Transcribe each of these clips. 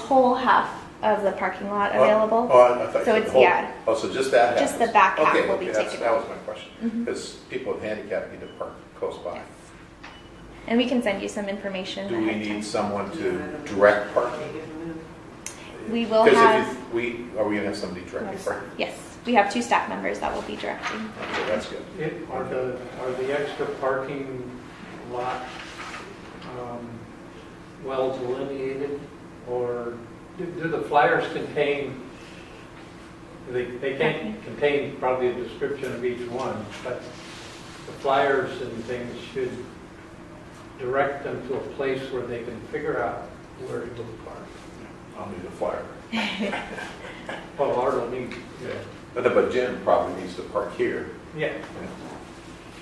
whole half of the parking lot Oh, available. Oh, I I thought So you said the it's- whole. yeah. Oh, so just that happens? Just the back half Okay, will be okay, that's- taken That out. was my Mm-hmm. question, because people with handicap need to park close by. And we can send you some information. Do we ahead of need time. someone to direct parking? We will 'Cause if have- you- We, are we gonna have somebody directing parking? Yes, we have two staff members that will be directing. Okay, that's good. It- Are the, are the extra parking lot um, well delineated? Or do do the flyers contain, they, they can't contain probably a description of each one, but the flyers and things should direct them to a place where they can figure out where to go park. I'll need a flyer. Well, Art will need, But, but Jim probably needs to park here. yeah.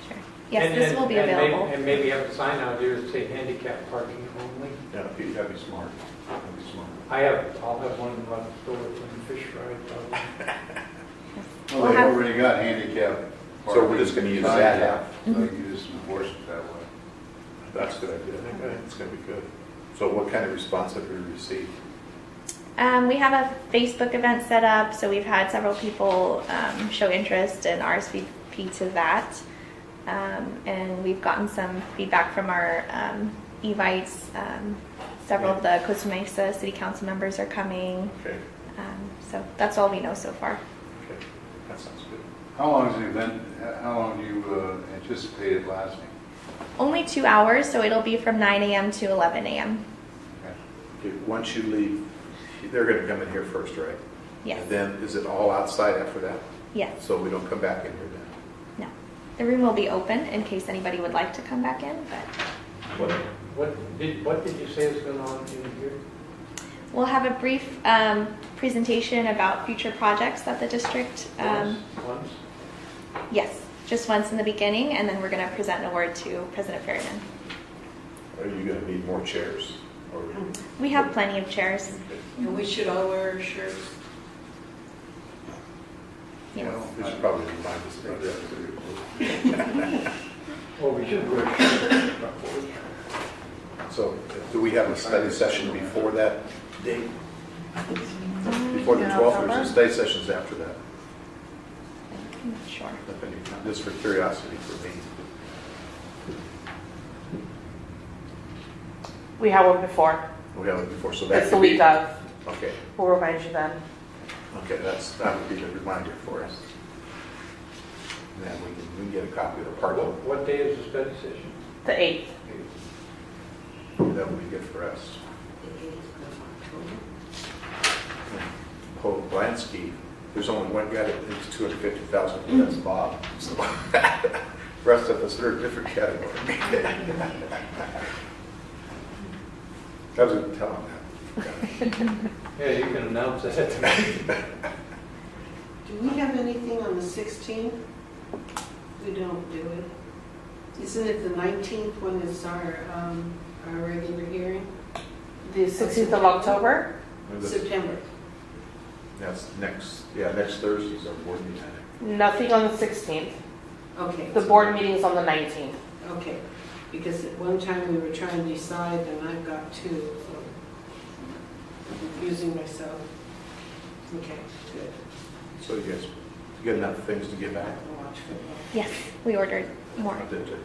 Sure. Yes, And- this and- will be and may- available. And maybe have a sign out here that say handicap parking only. Yeah, you gotta be smart. Gotta be smart. I have, I'll have one left over from the fish fry. probably. Well, We'll they've have- already got handicap. So we're just gonna use that half. So you just enforce it that way. That's a good idea. I think that's gonna be good. So what kind of response have we received? Um, we have a Facebook event set up, so we've had several people um, show interest and RSVP to that. Um, and we've gotten some feedback from our um, Evites. Um, several of the Costa Mesa City Council members are coming. Okay, Um, so that's all we know so far. okay, that sounds good. How long is the event, how long do you uh, anticipate it lasting? Only two hours, so it'll be from 9 a.m. to 11 a.m. Okay. Okay, Once you leave, they're gonna come in here first, right? Yes. And then, is it all outside after that? Yes. So we don't come back in here No. then? The room will be open in case anybody would like to come back in, but What? What did, what did you say is going on in here? we'll have a brief um, presentation about future projects that the district. Um, Once- Once? yes, just once in the beginning, and then we're going to present an award to President Ferryman. Are you gonna need more chairs? Or We have plenty of chairs. And we should all wear our shirts. Yes. Well, We should probably remind us about that. Oh, we should wear So do we have a study session before that date? Before the 12th, or is the study sessions after that? I'm not sure. If any- Just for curiosity for me. We had one before. We have it before, so that It's the could be- week of. Okay, We'll remind you then. okay, that's, that would be the reminder for us. And Then we can, we can get a copy of the part, What what day is the study session? The 8th. that would be good for us. Paul Blansky, there's only one guy that needs 250,000, that's Bob. So, Rest of us are a different category. I was going to tell him that. Yeah, you can announce it at the meeting. Do we have anything on the 16th? We don't do it. Isn't it the 19th when it's our, um, our regular hearing? The 16th of October? September. That's next, yeah, next Thursday's our board meeting. Nothing on the 16th. Okay, The board meeting's on the 19th. okay. Because at one time we were trying to decide and I've got two, so I'm confusing myself. Okay, good. So you guys, you got enough things to get I back? can watch football. Yes, we ordered more. I did, too.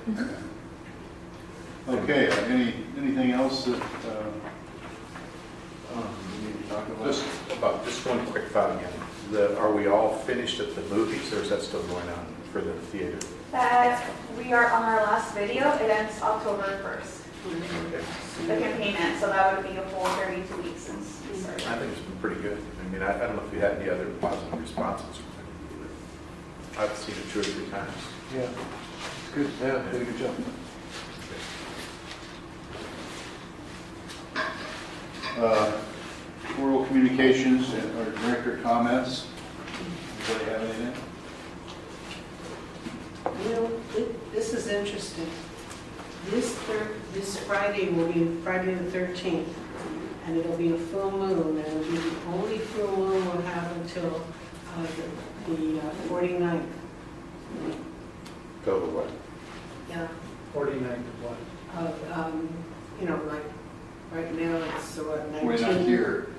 Okay, uh, any, anything else that, uh, oh, we need to talk about? Just about, just one quick thought again. The, are we all finished at the movies or is that still going on for the theater? that we are on our last video. It ends October 1st. Okay. The campaign ends, so that would be a whole 32 weeks since we started. I think it's been pretty good. I mean, I, I don't know if you had any other positive responses. I've seen it two or three times. Yeah, it's good, yeah, did a good job. Uh, Oral communications and our director comments. Anybody have anything? You know, thi- this is interesting. This thir this Friday will be Friday the 13th, and it'll be a full moon, and it'll be the only full moon we'll have until uh, the- the uh, 49th. Go to what? Yeah. 49 to what? Of, um, you know, like, right now, it's uh, what, 19? We're not here.